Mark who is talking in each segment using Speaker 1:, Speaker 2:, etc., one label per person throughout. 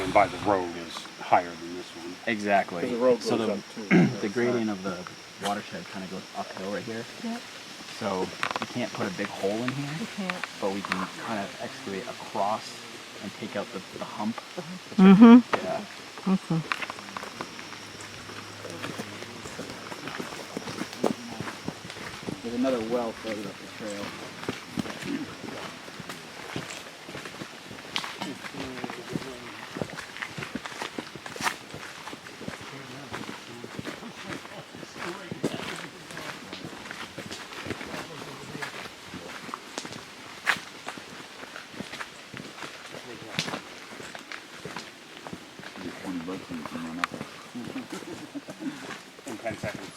Speaker 1: down by the road is higher than this one.
Speaker 2: Exactly.
Speaker 3: Because the road
Speaker 2: so
Speaker 3: goes
Speaker 2: the,
Speaker 3: up too, on the
Speaker 2: the
Speaker 3: other
Speaker 2: gradient of the watershed kind of goes uphill right here.
Speaker 4: Yep,
Speaker 2: So we can't put a big hole in
Speaker 4: you
Speaker 2: here,
Speaker 4: can't.
Speaker 2: but we can kind of excavate across and take out the, the hump.
Speaker 4: Mm-hmm.
Speaker 2: Yeah.
Speaker 3: There's another well further up the trail.
Speaker 1: In ten seconds.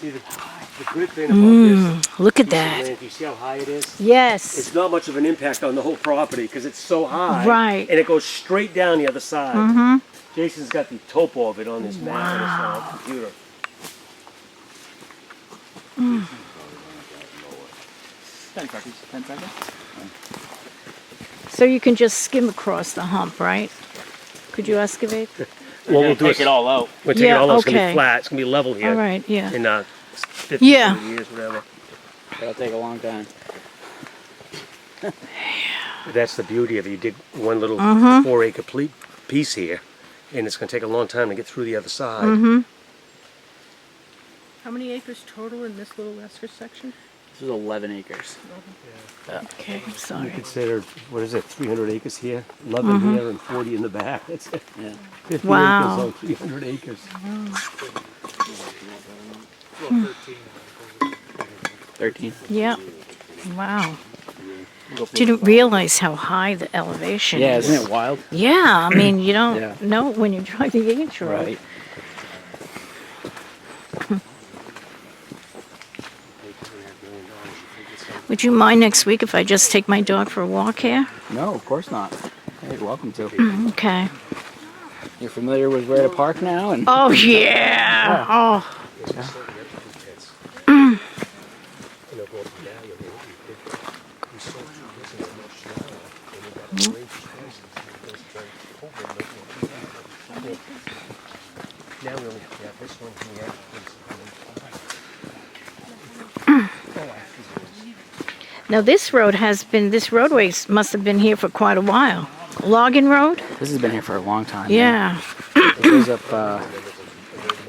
Speaker 5: See, the, the good thing
Speaker 4: Mm.
Speaker 5: about
Speaker 4: Look at
Speaker 5: this, land,
Speaker 4: that.
Speaker 5: if you see how high it is,
Speaker 4: Yes.
Speaker 5: it's not much of an impact on the whole property because it's so high.
Speaker 4: Right. Mm-hmm.
Speaker 5: And it goes straight down the other side. Jason's got the topo of it on his map on his uh, computer.
Speaker 3: Ten seconds. Ten seconds.
Speaker 4: So you can just skim across the hump, right? Could you excavate?
Speaker 5: Well, we'll do
Speaker 2: Take it all out.
Speaker 5: We'll take it
Speaker 4: Yeah,
Speaker 5: all out. It's going to
Speaker 4: okay.
Speaker 5: be flat. It's going to be level here
Speaker 4: All right, yeah.
Speaker 5: in uh, 50
Speaker 4: Yeah.
Speaker 5: years, whatever.
Speaker 2: That'll take a long time.
Speaker 5: That's the beauty of it. You did one little
Speaker 4: Mm-hmm.
Speaker 5: four acre ple- piece here, and it's going to take a long time to get through the other side.
Speaker 4: Mm-hmm.
Speaker 6: How many acres total in this little Lesker section?
Speaker 2: This is 11 acres.
Speaker 4: Okay, I'm sorry.
Speaker 5: Consider, what is it, 300 acres here,
Speaker 4: Mm-hmm.
Speaker 5: 11 here, and 40 in the back. That's it.
Speaker 2: Yeah.
Speaker 5: 50
Speaker 4: Wow.
Speaker 5: acres on 300 acres.
Speaker 6: Well,
Speaker 2: 13.
Speaker 6: thirteen.
Speaker 4: Yep. Wow. Didn't realize how high the elevation
Speaker 2: Yeah,
Speaker 4: is.
Speaker 2: isn't it wild?
Speaker 4: Yeah, I mean, you don't
Speaker 2: Yeah.
Speaker 4: know when you drive the H road. Would you mind next week if I just take my dog for a walk here?
Speaker 2: No, of course not. Hey, welcome to.
Speaker 4: Mm-hmm. Okay.
Speaker 2: You're familiar with where to park now, and
Speaker 4: Oh, yeah. Oh,
Speaker 5: Now we only have this one here.
Speaker 4: now this road has been, this roadway must have been here for quite a while. Logging Road?
Speaker 2: this has been here for a long time.
Speaker 4: Yeah.
Speaker 2: It goes up. Uh,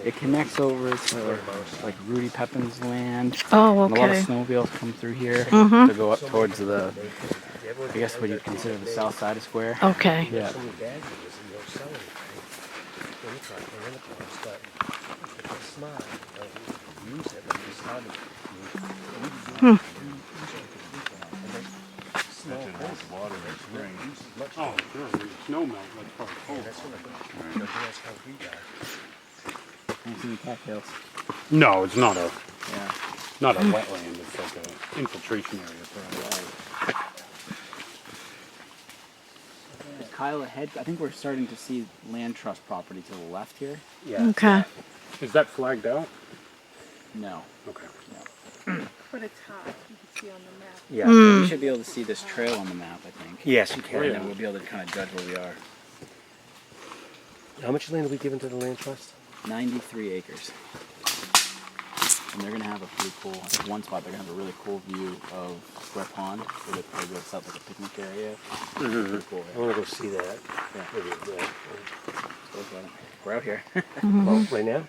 Speaker 2: it connects over to like Rudy Pepin's land.
Speaker 4: Oh,
Speaker 2: And a lot of
Speaker 4: okay.
Speaker 2: snowmobiles come through here to go up towards the, I guess what you'd consider the south side of Square.
Speaker 4: Oh. Okay.
Speaker 2: Yeah.
Speaker 1: Oh, sure, there's snow melt, that's probably cold. No, it's not a,
Speaker 2: Yeah.
Speaker 1: not a wetland, it's like a infiltration area for
Speaker 2: Is Kyle ahead? I think we're starting to see land trust property to the left here.
Speaker 5: Yeah.
Speaker 4: Okay.
Speaker 1: a Is that flagged out?
Speaker 2: No.
Speaker 1: Okay.
Speaker 6: But it's high, you can see on the map.
Speaker 5: Yeah.
Speaker 4: Hmm.
Speaker 2: We should be able to see this trail on the map, I think.
Speaker 5: Yes, you
Speaker 2: And then
Speaker 5: can.
Speaker 2: we'll be able to kind of judge where we are.
Speaker 5: How much land are we giving to the land trust?
Speaker 2: 93 acres. And they're going to have a pretty cool, I think one spot, they're going to have a really cool view of Square Pond, where they probably go set like a picnic area. Pretty cool.
Speaker 5: I want to go see that.
Speaker 2: Yeah.
Speaker 5: Maybe, yeah.
Speaker 2: We're out here.
Speaker 4: Mm-hmm.
Speaker 5: Well, right now?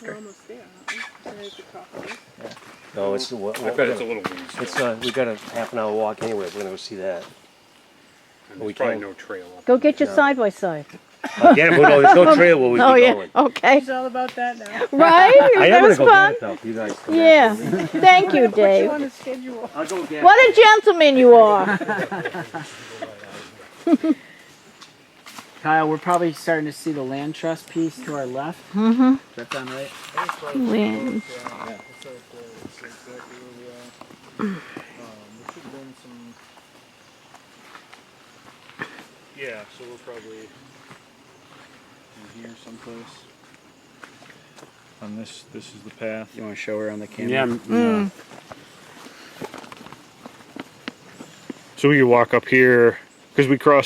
Speaker 6: We're almost there, aren't we? There's the property.
Speaker 5: No, it's. Well,
Speaker 1: I bet it's a little ways.
Speaker 5: It's uh, we got a half an hour walk anyway. We're gonna go see that.
Speaker 1: And
Speaker 5: we
Speaker 1: There's probably
Speaker 5: can-
Speaker 1: no trail up.
Speaker 4: Go get your side by side.
Speaker 5: Again, we don't- there's no trail where we
Speaker 4: Oh,
Speaker 5: be
Speaker 4: yeah.
Speaker 5: going.
Speaker 4: Okay.
Speaker 6: It's all about that now.
Speaker 4: Right?
Speaker 5: I am
Speaker 4: That
Speaker 5: gonna
Speaker 4: was
Speaker 5: go get
Speaker 4: fun.
Speaker 5: it though. You guys. come back.
Speaker 4: Yeah. Thank you,
Speaker 6: Put you
Speaker 4: Dave.
Speaker 6: on a schedule.
Speaker 5: I'll go get.
Speaker 4: What a gentleman you are.
Speaker 2: Kyle, we're probably starting to see the land trust piece to our left. Does that sound right?
Speaker 4: Lynn.
Speaker 3: It's right there. It's exactly where we are. Um, there should have been some.
Speaker 1: Yeah, so we're probably.
Speaker 3: In here someplace.
Speaker 7: On this, this is the path.
Speaker 2: You want to show her on the camera?
Speaker 1: Yeah, yeah.
Speaker 7: So we could walk up here, because we crossed